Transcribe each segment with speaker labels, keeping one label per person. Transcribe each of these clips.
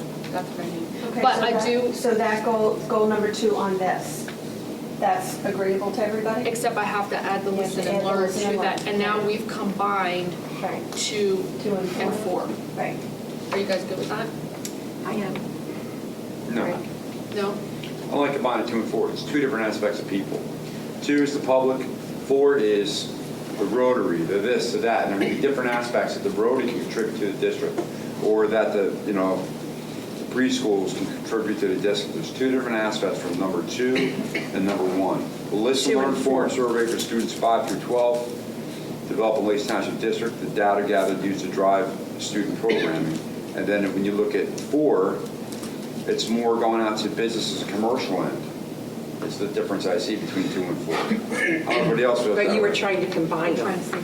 Speaker 1: forgot the brand name.
Speaker 2: Okay,
Speaker 1: But
Speaker 2: so
Speaker 1: I
Speaker 2: that-
Speaker 1: do-
Speaker 2: So that goal, goal number two on this, that's agreeable to everybody?
Speaker 1: Except I have to add the
Speaker 2: You have
Speaker 1: listen
Speaker 2: to
Speaker 1: and
Speaker 2: add the
Speaker 1: learn
Speaker 2: listen and
Speaker 1: to that,
Speaker 2: learn.
Speaker 1: and now we've combined
Speaker 2: Right.
Speaker 1: two
Speaker 2: Two and
Speaker 1: and
Speaker 2: four?
Speaker 1: four.
Speaker 2: Right.
Speaker 1: Are you guys good with that?
Speaker 3: I am.
Speaker 4: No,
Speaker 1: No?
Speaker 4: I only combined two and four. It's two different aspects of people. Two is the public, four is the Rotary, the this, the that, and there may be different aspects that the Rotary can contribute to the district, or that the, you know, the preschools can contribute to the district. There's two different aspects from number two and number one. The listen,
Speaker 1: Two
Speaker 4: learn,
Speaker 1: and
Speaker 4: form survey for students five through 12, develop a Lacey Township district, the data gathered used to drive student programming. And then when you look at four, it's more going out to businesses, commercial end. It's the difference I see between two and four. How everybody else feels that
Speaker 3: But you were
Speaker 4: way.
Speaker 3: trying to combine
Speaker 1: Trying to
Speaker 3: them.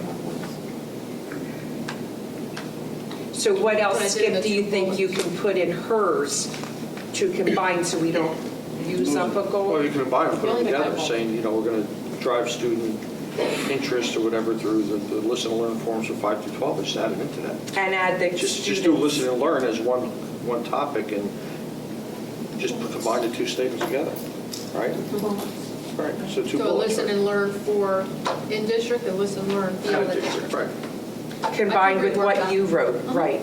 Speaker 1: see what
Speaker 3: So what
Speaker 1: But I
Speaker 3: else,
Speaker 1: did the
Speaker 3: Skip, do you
Speaker 1: two
Speaker 3: think you
Speaker 1: ones.
Speaker 3: can put in hers to combine so we don't use up a
Speaker 5: Well,
Speaker 3: goal?
Speaker 5: you can combine them, put
Speaker 1: Really
Speaker 5: them together,
Speaker 1: minimal.
Speaker 5: saying, you know, we're going to drive student interest or whatever through the, the listen and learn forms for five through 12, just add them into that.
Speaker 3: And add the
Speaker 5: Just, just do
Speaker 3: students.
Speaker 5: listen and learn as one, one topic and just combine the two statements together, right? Right, so
Speaker 1: it
Speaker 5: two
Speaker 1: is. So
Speaker 5: bullets.
Speaker 1: listen and learn for in-district and listen, and learn
Speaker 5: right?
Speaker 1: beyond the district.
Speaker 5: Right.
Speaker 3: Combined with
Speaker 1: rework
Speaker 3: what
Speaker 1: that.
Speaker 3: you wrote,
Speaker 1: Uh-huh.
Speaker 3: right?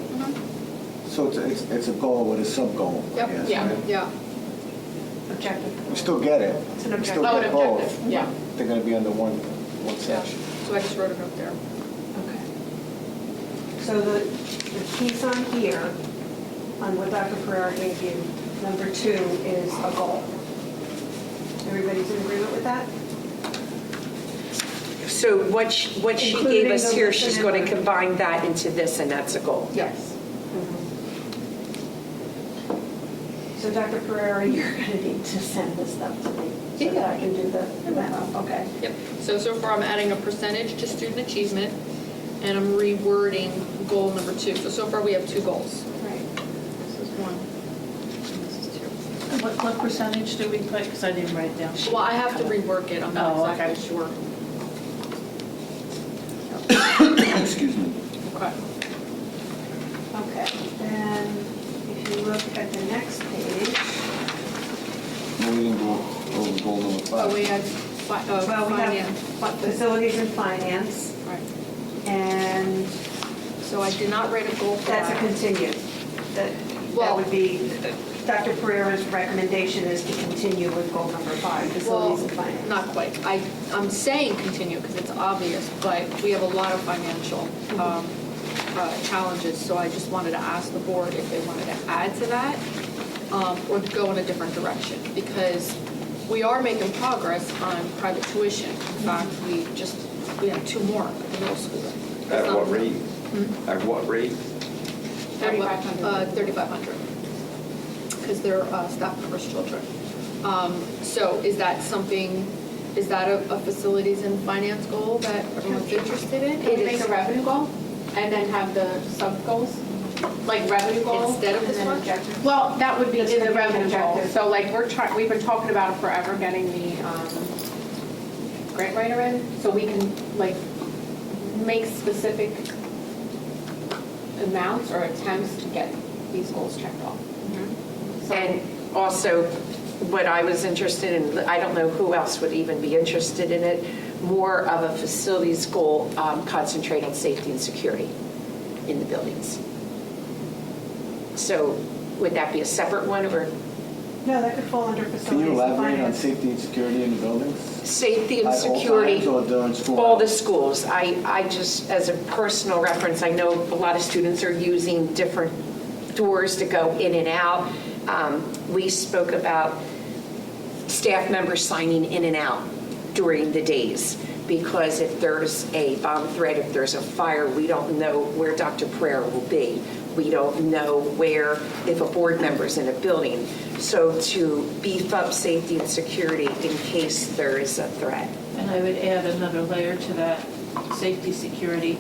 Speaker 6: So it's- it's, it's a goal with a sub-goal, I
Speaker 1: Yep,
Speaker 6: guess,
Speaker 1: yeah,
Speaker 6: right?
Speaker 1: yeah.
Speaker 2: Objective.
Speaker 6: We still get it.
Speaker 2: It's an
Speaker 6: We
Speaker 2: objective.
Speaker 6: still
Speaker 1: Oh,
Speaker 6: get
Speaker 1: an
Speaker 6: both.
Speaker 1: objective, yeah.
Speaker 6: They're going to be under one, one section.
Speaker 1: So I just wrote it up there.
Speaker 2: Okay. So the, the piece on here, on what Dr. Pereira gave you, number two is a goal. Everybody's in agreement with that?
Speaker 3: So what she, what she gave
Speaker 2: Including
Speaker 3: us
Speaker 2: the
Speaker 3: here,
Speaker 2: listen
Speaker 3: she's
Speaker 2: and
Speaker 3: going
Speaker 2: learn.
Speaker 3: to combine that into this, and that's a goal.
Speaker 1: Yes.
Speaker 2: So Dr. Pereira, you're going to need to send this stuff to me so that I can do the, the math. okay?
Speaker 1: Yep. So, so far I'm adding a percentage to student achievement and I'm rewording goal number two. So, so far we have two goals.
Speaker 2: Right.
Speaker 1: This is one. and This is two.
Speaker 7: What, what percentage do we put, because I didn't write it down.
Speaker 1: Well, I have to rework it. I'm
Speaker 7: Oh,
Speaker 1: not
Speaker 7: okay.
Speaker 1: exactly sure.
Speaker 6: Excuse me.
Speaker 1: Okay.
Speaker 2: Okay, then if you look at the next page,
Speaker 6: No, we didn't go over goal number five.
Speaker 1: Oh, we had fi-
Speaker 2: well,
Speaker 1: uh,
Speaker 2: we have
Speaker 1: finance.
Speaker 2: fi- facilities and finance,
Speaker 1: Right.
Speaker 2: and
Speaker 1: So I did not write a goal for
Speaker 2: that's a
Speaker 1: that.
Speaker 2: continued. That, that
Speaker 1: Well-
Speaker 2: would be, Dr. Pereira's recommendation is to continue with goal number five,
Speaker 1: Well,
Speaker 2: facilities and finance.
Speaker 1: not quite. I, I'm saying continue because it's obvious, but we have a lot of financial
Speaker 2: Mm-hmm.
Speaker 1: um, uh, challenges. So I just wanted to ask the board if they wanted to add to that um, or go in a different direction. Because we are making progress on private tuition. In
Speaker 2: Mm-hmm.
Speaker 1: fact, we just, we have two more at the middle school. It's
Speaker 4: At
Speaker 1: not-
Speaker 4: what rate?
Speaker 3: Mm-hmm.
Speaker 4: At what rate?
Speaker 1: at what-
Speaker 7: 3,500.
Speaker 1: uh, 3,500. Because they're uh, staff members' children. Um, So is that something, is that a a facilities and finance goal that everyone's interested in?
Speaker 7: Can we make a revenue goal and then have the sub-goals? Like revenue goal?
Speaker 1: Instead of
Speaker 7: and
Speaker 1: this
Speaker 7: then
Speaker 1: one?
Speaker 7: objective? Well, that would be
Speaker 2: That's
Speaker 7: in
Speaker 2: gonna
Speaker 7: the
Speaker 2: be an
Speaker 7: revenue goal.
Speaker 2: objective.
Speaker 7: So like, we're trying, we've been talking about forever getting the um, grant writer in, so we can like make specific amounts or attempts to get these goals checked off. So-
Speaker 3: Mm-hmm. And also, what I was interested in, I don't know who else would even be interested in it, more of a facilities goal um, concentrate on safety and security in the buildings. So would that be a separate one or
Speaker 2: No, that could fall under facilities
Speaker 6: Can you
Speaker 2: and finance.
Speaker 6: elaborate on safety and security in the buildings?
Speaker 3: safety and
Speaker 6: At all
Speaker 3: security?
Speaker 6: times or during school
Speaker 3: All the
Speaker 6: hours?
Speaker 3: schools. I, I just, as a personal reference, I know a lot of students are using different doors to go in and out. Um, We spoke about staff members signing in and out during the days, because if there's a bomb threat, if there's a fire, we don't know where Dr. Pereira will be. We don't know where, if a board member's in a building. So to beef up safety and security in case there is a threat.
Speaker 8: And I would add another layer to that, safety, security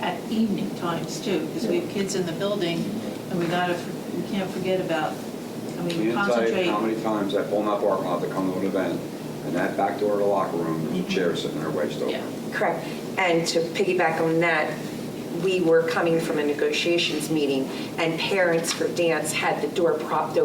Speaker 8: at evening times too, because we have kids in the building and we gotta, we can't forget about, I
Speaker 4: Can
Speaker 8: mean,
Speaker 4: you tell you
Speaker 8: concentrate.
Speaker 4: how many times I pull in that parking lot to come to an event, and that back door to the locker room, there's a chair sitting there wedged
Speaker 8: Yeah.
Speaker 4: open.
Speaker 3: Correct. And to piggyback on that, we were coming from a negotiations meeting, and parents for dance had the door propped open